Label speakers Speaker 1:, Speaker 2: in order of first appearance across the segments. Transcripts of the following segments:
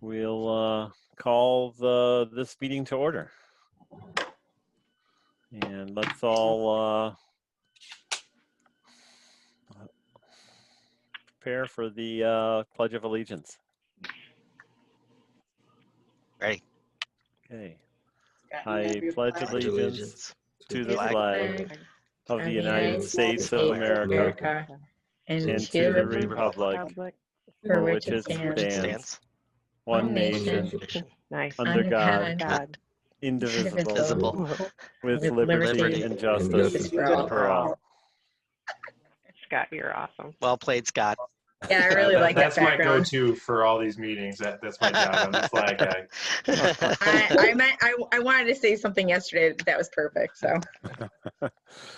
Speaker 1: We'll uh, call the, this meeting to order. And let's all uh, prepare for the uh, Pledge of Allegiance.
Speaker 2: Ready.
Speaker 1: Okay, I pledge
Speaker 2: Pledge
Speaker 1: allegiance to the
Speaker 2: the
Speaker 1: flag of the United States of America and to the republic for which it stands,
Speaker 2: Stands.
Speaker 1: one nation,
Speaker 2: Nation.
Speaker 3: Nice.
Speaker 1: under God,
Speaker 3: Thank God.
Speaker 1: indivisible,
Speaker 3: Indivisible,
Speaker 2: Visible.
Speaker 1: with
Speaker 3: with
Speaker 1: liberty
Speaker 2: liberty
Speaker 1: and
Speaker 4: and
Speaker 1: justice
Speaker 4: justice
Speaker 1: for all.
Speaker 3: Scott, you're awesome.
Speaker 2: Well played, Scott.
Speaker 5: Yeah, I really
Speaker 6: That-
Speaker 5: like that
Speaker 6: That's my
Speaker 5: background.
Speaker 6: go-to for all these meetings. That, that's my job. I'm the flag guy.
Speaker 5: I, I, meant, I, I wanted to say something yesterday that was perfect. So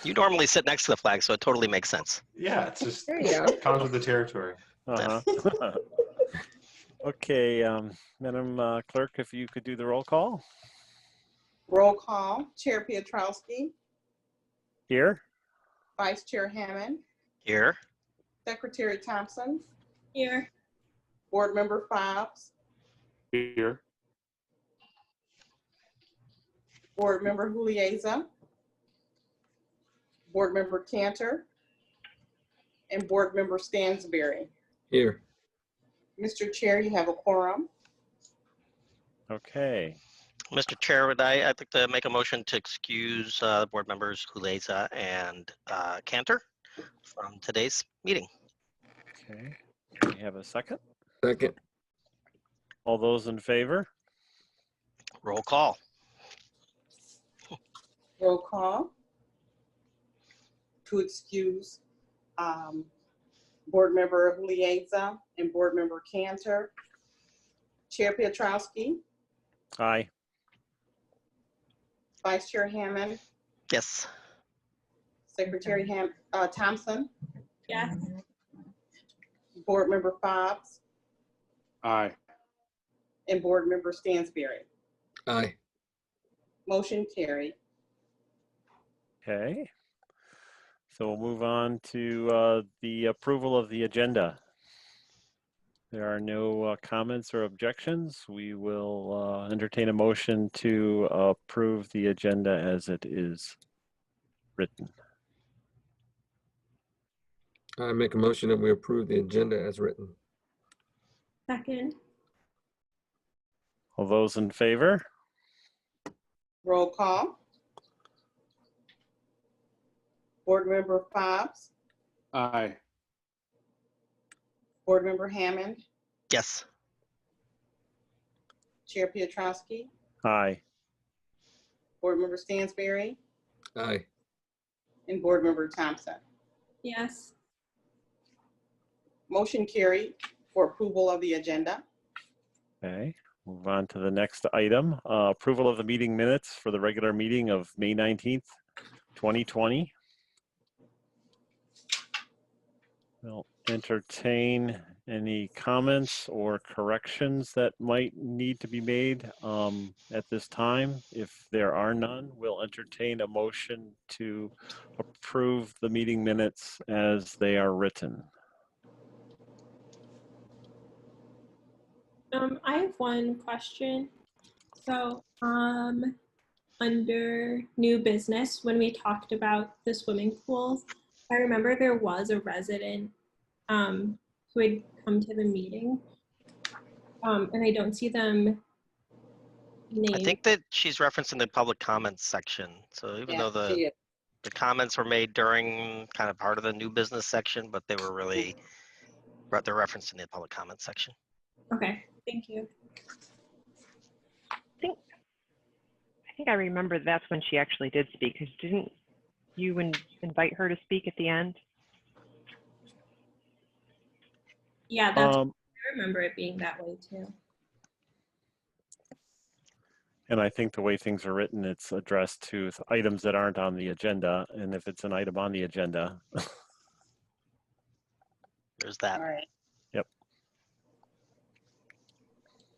Speaker 2: you normally sit next to the flag, so it totally makes sense.
Speaker 6: Yeah, it's just
Speaker 5: there you go.
Speaker 6: comes with the territory.
Speaker 1: Uh-huh. Okay, um, Madam uh, Clerk, if you could do the roll call
Speaker 7: Roll call, Chair Pietrowski,
Speaker 1: here.
Speaker 7: Vice Chair Hammond,
Speaker 2: Here.
Speaker 7: Secretary Thompson,
Speaker 8: Here,
Speaker 7: Board Member Fobbs,
Speaker 6: Here.
Speaker 7: Board Member Huliza, Board Member Cantor, and Board Member Stansberry.
Speaker 4: Here.
Speaker 7: Mr. Chair, you have a quorum.
Speaker 1: Okay,
Speaker 2: Mr. Chair, would I, I'd like to make a motion to excuse uh, board members Huleza and uh, Cantor from today's meeting.
Speaker 1: okay. Do We have a second.
Speaker 4: Second.
Speaker 1: All those in favor?
Speaker 2: Roll call.
Speaker 7: Roll call to excuse um, Board Member Huliza and Board Member Cantor. Chair Pietrowski,
Speaker 1: Aye.
Speaker 7: Vice Chair Hammond,
Speaker 2: Yes.
Speaker 7: Secretary Ham, uh, Thompson,
Speaker 8: yes,
Speaker 7: Board Member Fobbs,
Speaker 6: Aye.
Speaker 7: and Board Member Stansberry.
Speaker 4: Aye.
Speaker 7: Motion carried.
Speaker 1: Okay. So we'll move on to uh, the approval of the agenda. There are no uh, comments or objections. We will uh, entertain a motion to approve the agenda as it is written.
Speaker 4: I make a motion that we approve the agenda as written.
Speaker 8: second,
Speaker 1: All those in favor?
Speaker 7: Roll call. Board Member Fobbs,
Speaker 6: Aye.
Speaker 7: Board Member Hammond,
Speaker 2: Yes.
Speaker 7: Chair Pietrowski,
Speaker 1: Aye.
Speaker 7: Board Member Stansberry,
Speaker 4: Aye.
Speaker 7: and Board Member Thompson.
Speaker 8: yes,
Speaker 7: Motion carried for approval of the agenda.
Speaker 1: Okay, move on to the next item. uh, Approval of the meeting minutes for the regular meeting of May 19th, 2020. We'll entertain any comments or corrections that might need to be made um, at this time. If there are none, we'll entertain a motion to approve the meeting minutes as they are written.
Speaker 8: um, I have one question. So, um, under new business, when we talked about the swimming pools, I remember there was a resident, um, who had come to the meeting. Um, and I don't see them named.
Speaker 2: I think that she's referencing the public comments section. So even though the,
Speaker 7: Yeah,
Speaker 2: the comments were made during kind of part of the new business section, but they were really, re- they're referenced in the public comments section.
Speaker 8: Okay, thank you.
Speaker 3: I think I remember that's when she actually did speak, because didn't you in- invite her to speak at the end?
Speaker 8: Yeah, that's,
Speaker 1: Um,
Speaker 8: I remember it being that way too.
Speaker 1: And I think the way things are written, it's addressed to th- items that aren't on the agenda. And if it's an item on the agenda,
Speaker 2: There's
Speaker 7: All
Speaker 2: that.
Speaker 7: right.